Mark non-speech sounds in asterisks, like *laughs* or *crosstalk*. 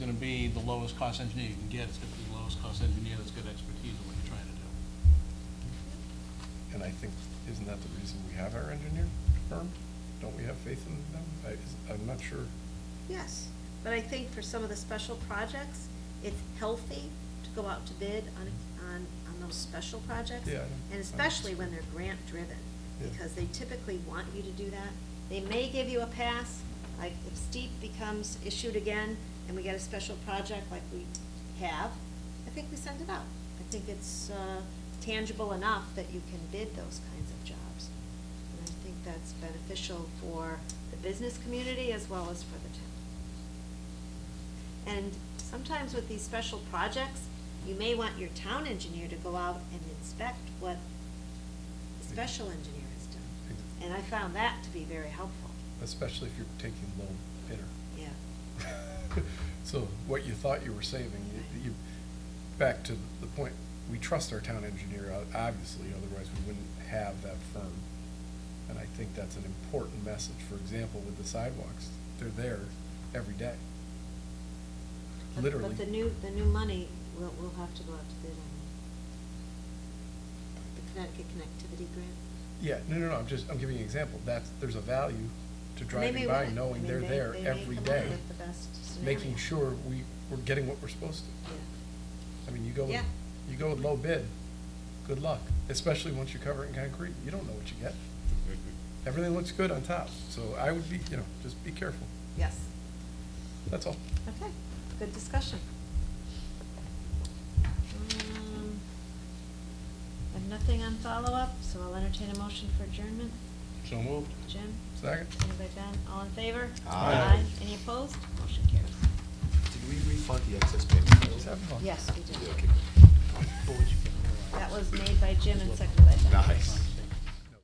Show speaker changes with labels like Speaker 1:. Speaker 1: the lowest cost engineer you can get, it's gonna be the lowest cost engineer that's got expertise in what you're trying to do.
Speaker 2: And I think, isn't that the reason we have our engineer firm? Don't we have faith in them? I, is- I'm not sure.
Speaker 3: Yes, but I think for some of the special projects, it's healthy to go out to bid on, on, on those special projects.
Speaker 2: Yeah, I know.
Speaker 3: And especially when they're grant-driven,
Speaker 2: Yeah.
Speaker 3: because they typically want you to do that. They may give you a pass, like if steep becomes issued again, and we get a special project like we have, I think we send it out. I think it's, uh, tangible enough that you can bid those kinds of jobs. And I think that's beneficial for the business community as well as for the town. And sometimes with these special projects, you may want your town engineer to go out and inspect what the special engineer has done. And I found that to be very helpful,
Speaker 2: Especially if you're taking low bidder. *laughs*
Speaker 3: yeah.
Speaker 2: So what you thought you were saving, you, you, back to the point, we trust our town engineer, o- obviously, otherwise we wouldn't have that firm. And I think that's an important message, for example, with the sidewalks, they're there every day.
Speaker 3: But-
Speaker 2: Literally.
Speaker 3: But the new, the new money, we'll, we'll have to go out to bid on the Connecticut Connectivity Grant.
Speaker 2: Yeah, no, no, no, I'm just, I'm giving you an example, that's, there's a value to
Speaker 3: And they
Speaker 2: driving
Speaker 3: may
Speaker 2: by,
Speaker 3: win it. I
Speaker 2: knowing
Speaker 3: mean,
Speaker 2: they're
Speaker 3: they-
Speaker 2: there
Speaker 3: they may
Speaker 2: every
Speaker 3: come up
Speaker 2: day,
Speaker 3: with the best
Speaker 2: making
Speaker 3: scenario.
Speaker 2: sure we, we're getting what we're supposed to.
Speaker 3: Yeah.
Speaker 2: I mean, you go, with-
Speaker 3: Yeah.
Speaker 2: you go with low bid, good luck, especially once you cover it in concrete, you don't know what you get.
Speaker 1: Mm-hmm.
Speaker 2: Everything looks good on top, so I would be, you know, just be careful,
Speaker 3: Yes,
Speaker 2: that's all.
Speaker 3: okay, good discussion. Um, I have nothing on follow-up, so I'll entertain a motion for adjournment.
Speaker 1: So moved.
Speaker 3: Jim,
Speaker 2: Second?
Speaker 3: seconded by Ben, all in favor?
Speaker 4: Aye.
Speaker 3: Any opposed? Motion carries.
Speaker 4: Did we refund the excess payments?
Speaker 2: Just having fun.
Speaker 3: Yes, we did.
Speaker 4: Yeah, okay.
Speaker 3: That was made by Jim and seconded by Ben.
Speaker 4: Nice.